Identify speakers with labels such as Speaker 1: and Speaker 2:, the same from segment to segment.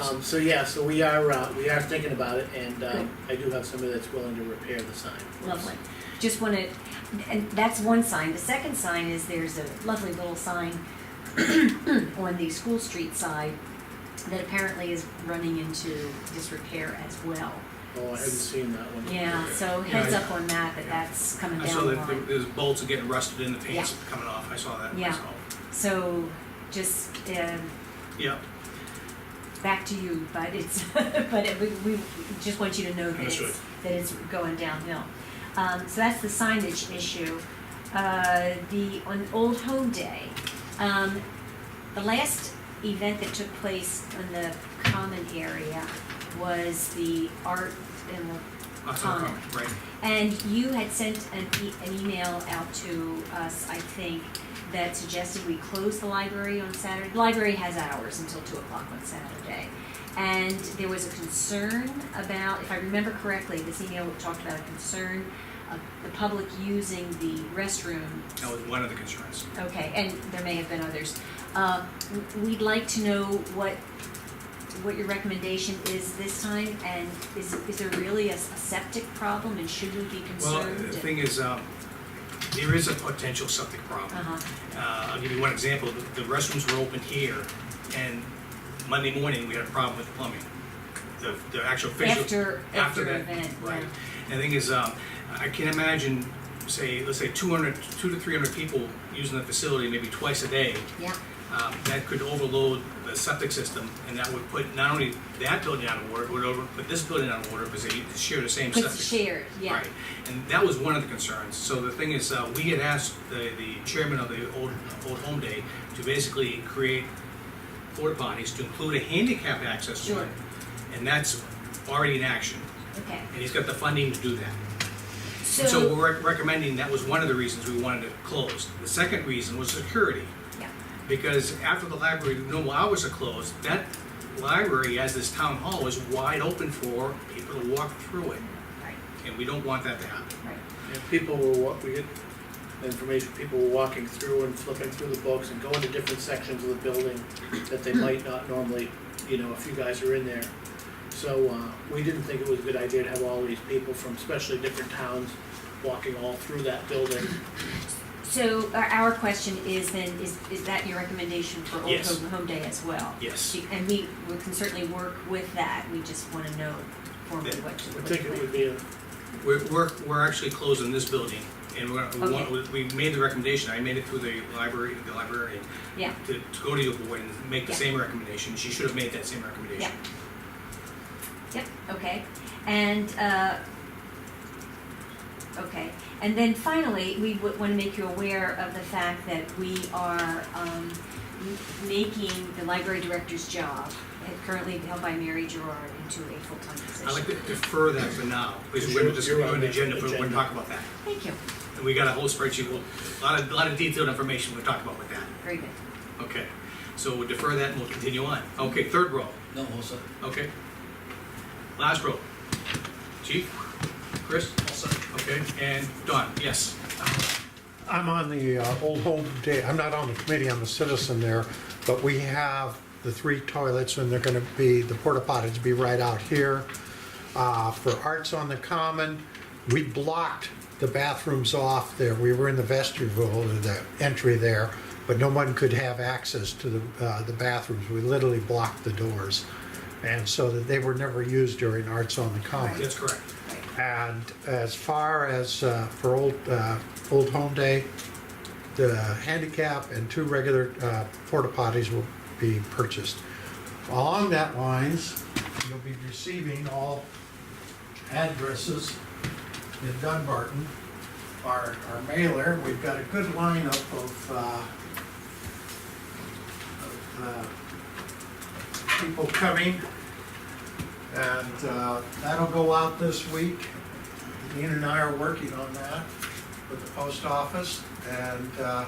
Speaker 1: Um, so yeah, so we are, uh, we are thinking about it and, um, I do have somebody that's willing to repair the sign. for us.
Speaker 2: Lovely. Just wanna, and that's one sign. The second sign is there's a lovely little sign on the School Street side that apparently is running into disrepair as well.
Speaker 1: Oh, I haven't seen that one.
Speaker 2: Yeah, so heads up on that, that that's coming
Speaker 3: I saw
Speaker 2: down the
Speaker 3: that
Speaker 2: line.
Speaker 3: there- there's bolts are getting rusted in the paint's coming off, I saw that
Speaker 2: Yeah.
Speaker 3: myself.
Speaker 2: So just, um,
Speaker 3: Yeah,
Speaker 2: back to you, but it's, but it- we, we just want you to know that
Speaker 3: Understood.
Speaker 2: it's, that it's going downhill. Um, so that's the signage issue. Uh, the, on Old Home Day, um, the last event that took place in the common area was the art and
Speaker 3: that's not a
Speaker 2: Um,
Speaker 3: problem, right.
Speaker 2: and you had sent an, e- an email out to us, I think, that suggested we close the library on Saturday. The library has hours until two o'clock on Saturday. And there was a concern about, if I remember correctly, this email talked about a concern of the public using the restroom
Speaker 3: That was one of the concerns.
Speaker 2: Okay, and there may have been others. Uh, w- We'd like to know what, what your recommendation is this time, and is, is there really a s- a septic problem, and should we be
Speaker 3: Well,
Speaker 2: concerned?
Speaker 3: the thing is, um, there is a potential septic problem.
Speaker 2: Uh-huh,
Speaker 3: Uh, I'll give you one example, The- the restrooms were open here, and Monday morning, we had a problem with plumbing. The, the actual fissure.
Speaker 2: after, after
Speaker 3: that,
Speaker 2: event,
Speaker 3: Right.
Speaker 2: yeah.
Speaker 3: And the thing is, um, I can imagine, say, let's say 200, two to 300 people using the facility maybe twice a day.
Speaker 2: Yeah,
Speaker 3: um, that could overload the septic system, and that would put not only that building out of order, it would over, put this building out of order, because they share the same septic.
Speaker 2: it's shared, yeah.
Speaker 3: Right, and that was one of the concerns, so the thing is, uh, we had asked the, the chairman of the old, old home day to basically create porta potties to include a handicap access to
Speaker 2: Sure.
Speaker 3: it. And that's already in action,
Speaker 2: Okay,
Speaker 3: and he's got the funding to do that. And so
Speaker 2: so,
Speaker 3: we're rec- recommending, that was one of the reasons we wanted it closed. The second reason was security.
Speaker 2: Yeah.
Speaker 3: Because after the library, no hours are closed, that library, as this town hall, is wide open for people to walk through it,
Speaker 2: right,
Speaker 3: and we don't want that to happen.
Speaker 2: right,
Speaker 1: And people were wa, we get the information, people were walking through and flipping through the books and going to different sections of the building that they might not normally, you know, if you guys are in there. So, uh, we didn't think it was a good idea to have all these people from especially different towns walking all through that building.
Speaker 2: so our, our question is then, is, is that your recommendation for Old
Speaker 3: Yes.
Speaker 2: Home, Home Day as well?
Speaker 3: Yes.
Speaker 2: And we, we can certainly work with that, we just wanna know formally
Speaker 3: Yeah,
Speaker 2: what to,
Speaker 1: I
Speaker 2: what to
Speaker 1: think it would be a
Speaker 3: We're, we're, we're actually closing this building, and we're, we want- we made the recommendation, I made it through the library, the librarian,
Speaker 2: Yeah.
Speaker 3: to, to go to your board and make the
Speaker 2: Yeah.
Speaker 3: same recommendation, she should have made that same recommendation.
Speaker 2: Yep, okay, and, uh, okay, and then finally, we w- wanna make you aware of the fact that we are, um, m- making the library director's job, uh, currently held by Mary Gerard, into a full-time
Speaker 3: I'd like
Speaker 2: position.
Speaker 3: to defer that for now, because we're
Speaker 1: You're-
Speaker 3: just,
Speaker 1: you're
Speaker 3: we're
Speaker 1: on
Speaker 3: on
Speaker 1: the
Speaker 3: the agenda, but we're gonna
Speaker 1: agenda.
Speaker 3: talk about that.
Speaker 2: Thank you,
Speaker 3: And we got a whole spreadsheet, well, a lot of, a lot of detailed information we'll talk about with that.
Speaker 2: very good.
Speaker 3: Okay, so we'll defer that and we'll continue on. Okay, third row,
Speaker 4: No, also,
Speaker 3: okay. Last row. Chief, Chris,
Speaker 4: also,
Speaker 3: okay, and Don, yes.
Speaker 5: I'm on the uh, Old Home Day, I'm not on the committee, I'm a citizen there, but we have the three toilets and they're gonna be, the porta potties be right out here. Uh, For Arts on the Common, we blocked the bathrooms off there, we were in the vestibule, the entry there, but no one could have access to the, uh, the bathrooms, we literally blocked the doors. And so that they were never used during Arts on the Common.
Speaker 3: That's correct.
Speaker 5: And as far as uh, for old, uh, Old Home Day, the handicap and two regular uh, porta potties will be purchased. Along that lines, you'll be receiving all addresses in Dunbarton. Our, our mailer, we've got a good lineup of, uh, of, uh, people coming. And uh, that'll go out this week. Dean and I are working on that with the post office. And uh,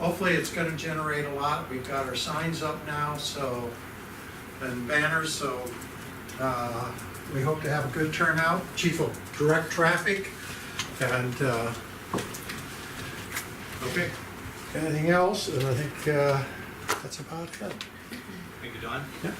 Speaker 5: hopefully, it's gonna generate a lot. We've got our signs up now, so, and banners, so uh, we hope to have a good turnout. Chief will direct traffic. And uh,
Speaker 3: Okay,
Speaker 5: anything else? And I think uh, that's about it.
Speaker 3: thank you, Don.
Speaker 5: Yeah.